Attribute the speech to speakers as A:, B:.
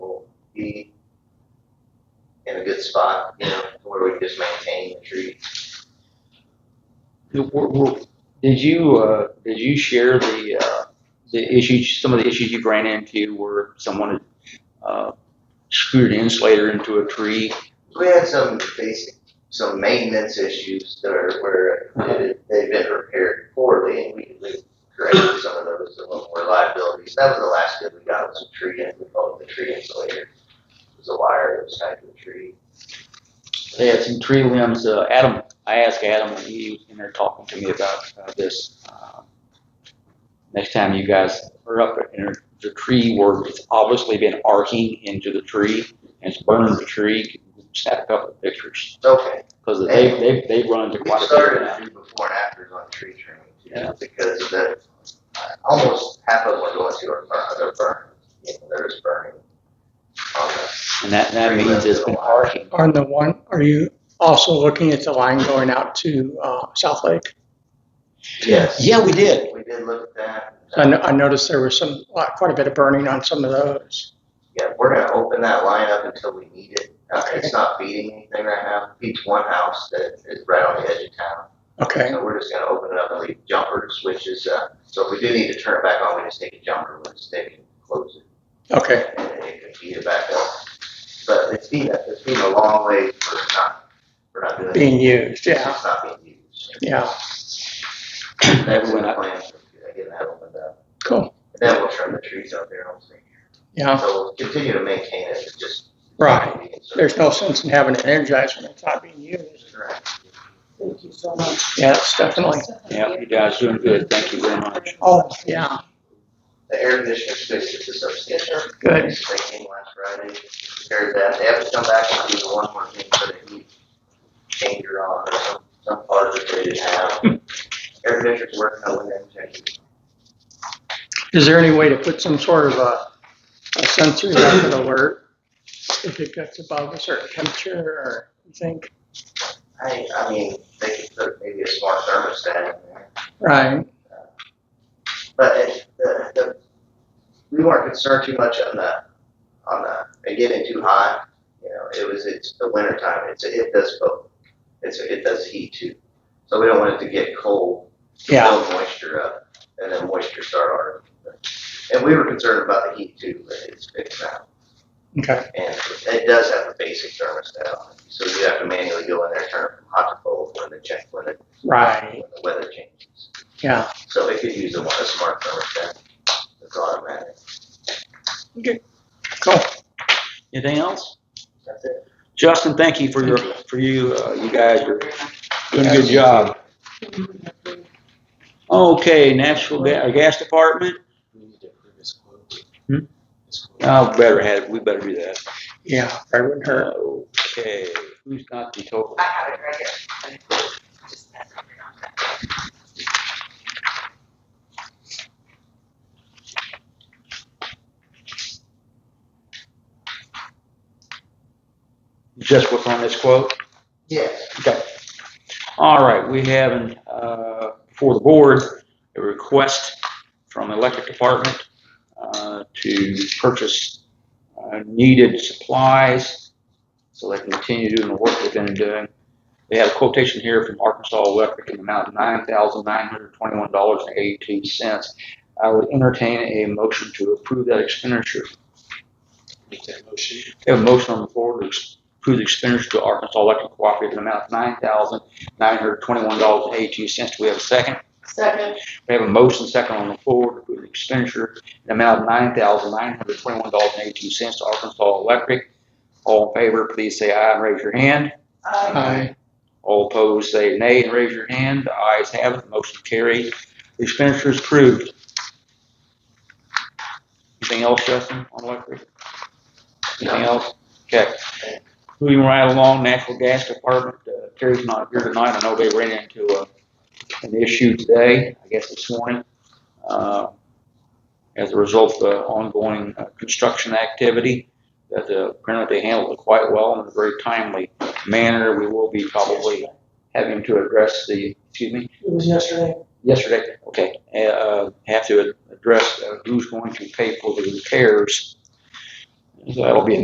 A: be in a good spot, you know, where we just maintain the tree.
B: The- were- were- Did you, uh, did you share the, uh, the issues, some of the issues you ran into where someone had, uh, screwed an insulator into a tree?
A: We had some basic, some maintenance issues that are where it- they've been repaired poorly, and we, we corrected some of those, some of more liabilities. That was the last good we got, was a tree, and we called it the tree insulator. It was a wire that was tied to a tree.
B: They had some tree limbs, uh, Adam, I asked Adam when he was in there talking to me about, uh, this. um, Next time you guys are up in the tree where it's obviously been arcing into the tree and it's burning the tree, snap a couple of pictures.
A: Okay,
B: Cause they, they, they run into
A: We
B: quite a bit of
A: started
B: that.
A: to do before and afters on tree trimming
B: Yeah.
A: too, because the, uh, almost half of them are going to our burn, other burn, you know, there's burning. Um, on the-
B: And that, that means it's been arcing.
C: On the one, are you also looking at the line going out to uh, South Lake?
A: Yes,
B: Yeah, we did.
A: we did look at that. uh,
C: I no- I noticed there was some, uh, quite a bit of burning on some of those.
A: Yeah, we're gonna open that line up until we need it. Uh, it's not feeding anything right now. Feeds one house that is right on the edge of town.
C: Okay,
A: So we're just gonna open it up and leave jumpers, which is, uh, so if we do need to turn it back on, we just take a jumper, we'll just take it and close it.
C: okay,
A: and then it could feed it back up. But it's been, it's been a long way for not, for not doing.
C: being
A: It's
C: used, yeah,
A: just not being used.
C: yeah,
A: That's in the plan, for getting that opened up.
C: cool,
A: And Then we'll trim the trees out there, hopefully.
C: yeah,
A: So we'll continue to maintain it, it's just.
C: right. There's no sense in having it energized when it's not being used.
A: Correct.
D: Thank you so much.
C: Yeah, it's definitely,
B: Yeah, you guys doing good. Thank you very much.
C: oh, yeah,
A: The air conditioner space is a substantial.
C: good,
A: They came last Friday, repaired that, they have to come back and do the one more thing for the heat changer on or some, some part that they didn't have. Air conditioner's working, I went in and checked it.
C: Is there any way to put some sort of a, a sensory level alert if it gets above a certain temperature or you think?
A: I, I mean, they could put maybe a smart thermostat in there,
C: Right,
A: but it, the, the, we weren't concerned too much on the, on the, it getting too hot. You know, it was, it's the winter time, it's, it does both, it's, it does heat too. So we don't want it to get cold,
C: yeah,
A: build moisture up, and then moisture start our, and we were concerned about the heat too, but it's fixed now.
C: okay,
A: And it does have a basic thermostat on it, so you have to manually go in there, turn it from hot to cold, when the check, when the,
C: right,
A: when the weather changes.
C: yeah.
A: So they could use a, a smart thermostat. It's automatic.
B: Anything else?
A: That's it.
B: Justin, thank you for your, for you, uh, you guys are doing a good job. Okay, Nashville Ga- uh, Gas Department,
E: We need to approve his quote.
B: Hmm?
E: His quote.
B: oh, better have, we better do that.
C: Yeah, I wouldn't hurt.
B: Okay, who's got the total?
D: I have it right here. Just pass it around.
B: Just what's on this quote?
A: Yes.
B: All right, we have, uh, for the board, a request from the electric department, uh, to purchase, uh, needed supplies so they can continue doing the work they've been doing. They have a quotation here from Arkansas Electric in the amount of nine thousand nine hundred twenty-one dollars and eighty-two cents. I would entertain a motion to approve that expenditure.
E: Make that motion.
B: We have a motion on the floor to approve the expenditure to Arkansas Electric Cooperative in the amount of nine thousand nine hundred twenty-one dollars and eighty-two cents. Do we have a second?
D: Second,
B: We have a motion second on the floor to approve the expenditure in the amount of nine thousand nine hundred twenty-one dollars and eighty-two cents to Arkansas Electric. All in favor, please say aye and raise your hand.
D: uh,
C: Aye.
B: All opposed, say nay and raise your hand. The ayes have it, the motion carried. The expenditure is approved. Anything else, Justin, on electric? Anything else? Okay. Moving right along, Natural Gas Department, uh, Terry's not here tonight. I know they ran into a, an issue today, I guess this morning, uh, as a result of the ongoing uh, construction activity, that uh, apparently they handled it quite well in a very timely manner. We will be probably having to address the, excuse me,
D: it was yesterday.
B: yesterday, okay, uh, have to address uh, who's going to pay for the repairs. So That'll be an